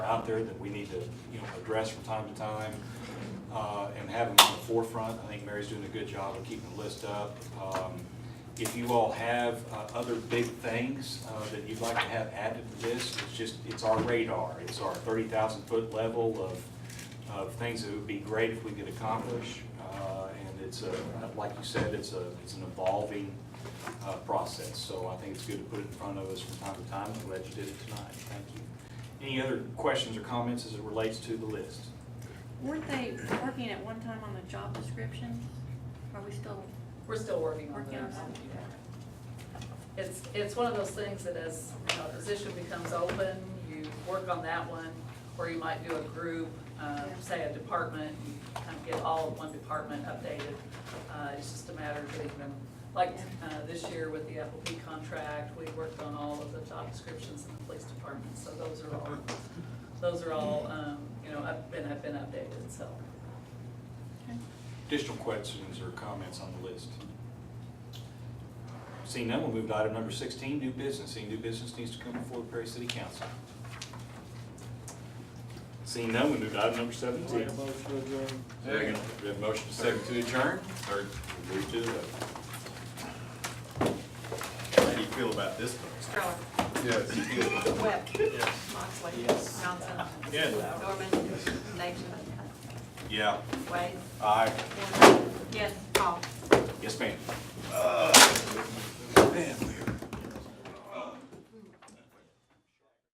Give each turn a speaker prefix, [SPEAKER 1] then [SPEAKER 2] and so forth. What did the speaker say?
[SPEAKER 1] there that we need to, you know, address from time to time, uh, and have them on the forefront. I think Mary's doing a good job of keeping the list up. Um, If you all have, uh, other big things, uh, that you'd like to have added to this, it's just, it's our radar. It's our thirty thousand foot level of, of things that would be great if we could accomplish. Uh, and it's a, like you said, it's a, it's an evolving, uh, process. So I think it's good to put it in front of us from time to time. I'm glad you did it tonight. Thank you. Any other questions or comments as it relates to the list?
[SPEAKER 2] Weren't they working at one time on the job description? Are we still,
[SPEAKER 3] We're still working on
[SPEAKER 2] Working on
[SPEAKER 3] those.
[SPEAKER 2] that.
[SPEAKER 3] yeah. It's, it's one of those things that as, you know, a position becomes open, you work on that one, or you might do a group, um, say a department, you kind of get all of one department updated. Uh, It's just a matter of getting them, like uh, this year with the FLP contract, we worked on all of the job descriptions in the police department. So those are all, those are all, um, you know, up- been, have been updated, so.
[SPEAKER 1] Additional questions or comments on the list? Seeing none, we'll move to item number sixteen, new business. Seeing new business needs to come before the Perry City Council. Seeing none, we move to item number seventeen.
[SPEAKER 4] Second.
[SPEAKER 1] We have a motion to second to adjourn. Third, we move to the vote.
[SPEAKER 4] How do you feel about this one?
[SPEAKER 5] Stroller.
[SPEAKER 4] Yes.
[SPEAKER 5] Webb. Moxley. Johnson. Norman. Nation.
[SPEAKER 4] Yeah.
[SPEAKER 5] Wade.
[SPEAKER 4] Aye.
[SPEAKER 5] Hammond. Yes. Paul.
[SPEAKER 1] Yes, ma'am.
[SPEAKER 4] Man, we are.